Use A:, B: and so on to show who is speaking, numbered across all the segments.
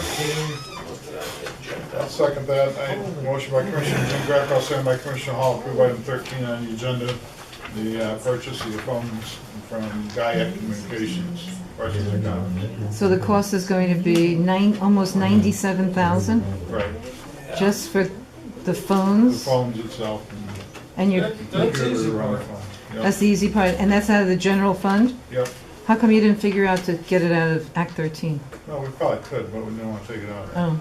A: thirteen.
B: I'll second that. I, motion by Commissioner Jean Greco, second by Commissioner Hall, approve item thirteen on the agenda, the uh, purchase of the phones from Gaia Communications. Questions or comments?
C: So the cost is going to be nine, almost ninety-seven thousand,
B: Right,
C: just for the
B: the
C: phones,
B: phones itself. and
C: and your,
A: That- That's
B: computer
A: easy,
B: around the
A: Mark.
B: phone. Yep,
C: that's the easy part, and that's out of the general fund?
B: Yep,
C: How come you didn't figure out to get it out of Act thirteen?
B: no, we probably could, but we didn't want to take it out.
C: Oh,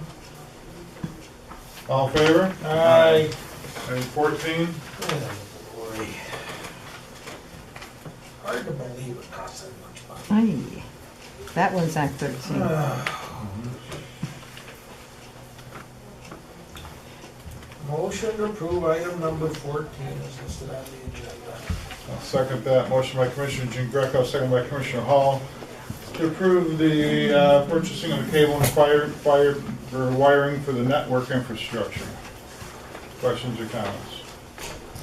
B: All in favor?
A: Aye.
B: Item fourteen,
A: Boy. Hard to believe it costs that much money.
C: aye, that one's Act thirteen.
A: Motion to approve item number fourteen is listed on the agenda.
B: I'll second that. Motion by Commissioner Jean Greco, second by Commissioner Hall, to approve the uh, purchasing of the cable and fire, fire, for wiring for the network infrastructure. Questions or comments?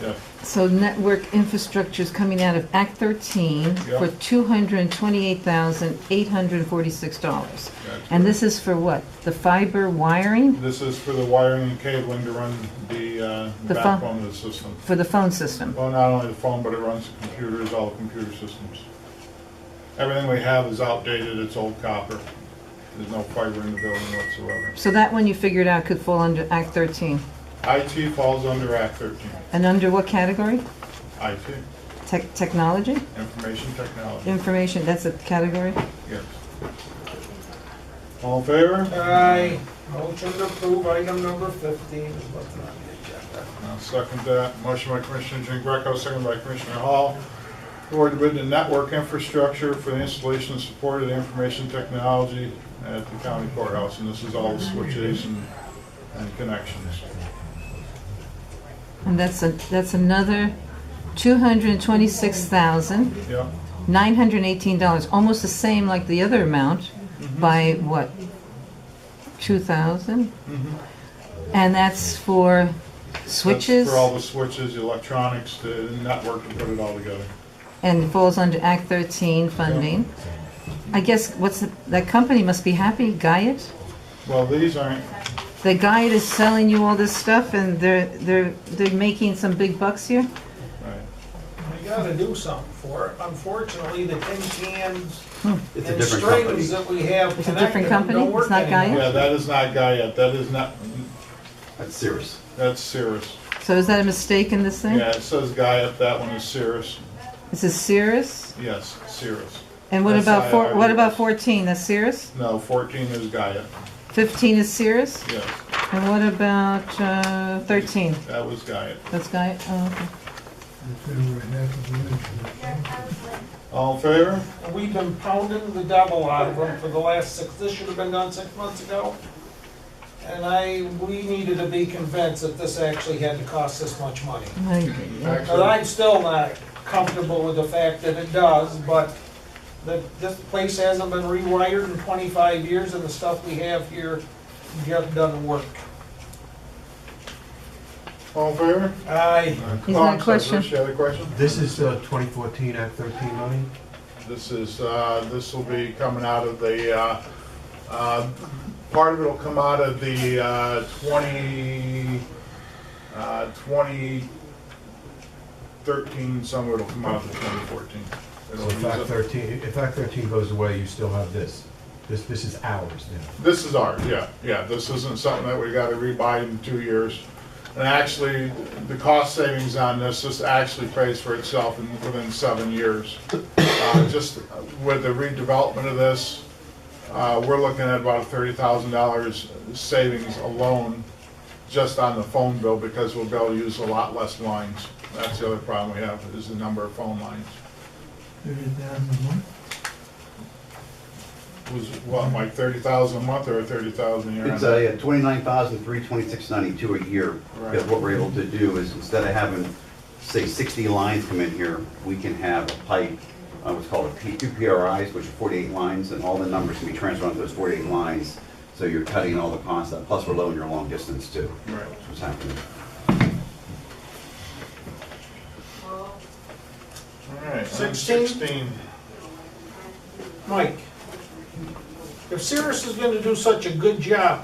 B: Yeah,
C: So network infrastructure is coming out of Act thirteen for
B: Yeah.
C: two hundred and twenty-eight thousand, eight hundred and forty-six dollars.
B: that's
C: And
B: good.
C: this is for what? The fiber wiring
B: This is for the wiring and cabling to run the uh,
C: The phone.
B: backbone of the system.
C: for the phone system?
B: Well, not only the phone, but it runs the computers, all the computer systems. Everything we have is outdated, it's old copper. There's no fiber in the building whatsoever.
C: So that one you figured out could fall under Act thirteen.
B: IT falls under Act 13.
C: And under what category?
B: IT,
C: Tech, technology?
B: information technology,
C: Information, that's a category?
B: yes. All in favor?
A: Aye. Motion to approve item number fifteen is listed on the agenda.
B: I'll second that. Motion by Commissioner Jean Greco, second by Commissioner Hall. Award bid to network infrastructure for the installation and support of the information technology at the county courthouse. And this is all the switches and, and connections.
C: And that's a, that's another two hundred and twenty-six thousand,
B: Yep,
C: nine hundred and eighteen dollars, almost the same like the other amount
B: Mm-hmm.
C: by what? Two thousand?
B: Mm-hmm.
C: And that's for switches?
B: That's For all the switches, the electronics, the network, and put it all together.
C: And it falls under Act thirteen funding. I guess, what's, the- that company must be happy, Guyot?
B: Well, these aren't,
C: The guy that's selling you all this stuff and they're, they're, they're making some big bucks here?
B: right.
A: We gotta do something for it. Unfortunately, the tin cans
D: It's a
A: and
D: different company.
A: straighters that we have
C: a different
A: connected them
C: company?
A: don't
C: It's
A: work
C: not Gaia?
A: anymore.
B: Yeah, that is not Guyet, that is not,
D: That's serious.
B: that's Cirrus.
C: So is that a mistake in this thing?
B: Yeah, it says Guyot, that one is Cirrus.
C: This is Cirrus?
B: Yes, Cirrus.
C: And what
B: That's
C: about four,
B: IRS.
C: what about fourteen? That's Cirrus?
B: No, 14 is Gaia,
C: Fifteen is Cirrus?
B: yes.
C: And what about, uh, thirteen?
B: That was Gaia.
C: That's guy, oh, okay.
B: All in favor?
A: And We've been pounding the devil out of them for the last six, this should have been done six months ago. And I, we needed to be convinced that this actually had to cost this much money.
C: Aye.
A: But I'm still not comfortable with the fact that it does, but the, this place hasn't been rewired in twenty-five years and the stuff we have here just doesn't work.
B: All in favor?
A: Aye.
C: He's
B: Oh, I'm sorry,
C: got a question.
B: Bruce, you had a question?
E: This is uh, 2014 Act 13 money?
B: This is, uh, this will be coming out of the, uh, uh, part of it'll come out of the uh, 20, uh, 2013, some of it'll come out of the 2014.
E: So
B: It'll
E: if
B: use
E: Act
B: it-
E: 13, if Act 13 goes away, you still have this. This, this is ours now.
B: This is ours, yeah, yeah, this isn't something that we gotta rebuy in two years. And actually, the cost savings on this, this actually pays for itself in, within seven years. Uh, Just with the redevelopment of this, uh, we're looking at about thirty thousand dollars savings alone just on the phone bill, because we'll be able to use a lot less lines. That's the other problem we have, is the number of phone lines. Was, what, like thirty thousand a month or thirty thousand a year?
D: It's a twenty-nine thousand, three twenty-six ninety-two a year.
B: Right.
D: Because what we're able to do is instead of having, say, sixty lines come in here, we can have a pipe, uh, what's called a P, two PRIs, which are forty-eight lines, and all the numbers can be transferred onto those forty-eight lines. So you're cutting all the costs out, plus we're lowering your long distance too.
B: Right.
D: That's what's happening.
B: All right, item
A: Sixteen.
B: sixteen.
A: Mike? If Cirrus is gonna do such a good job,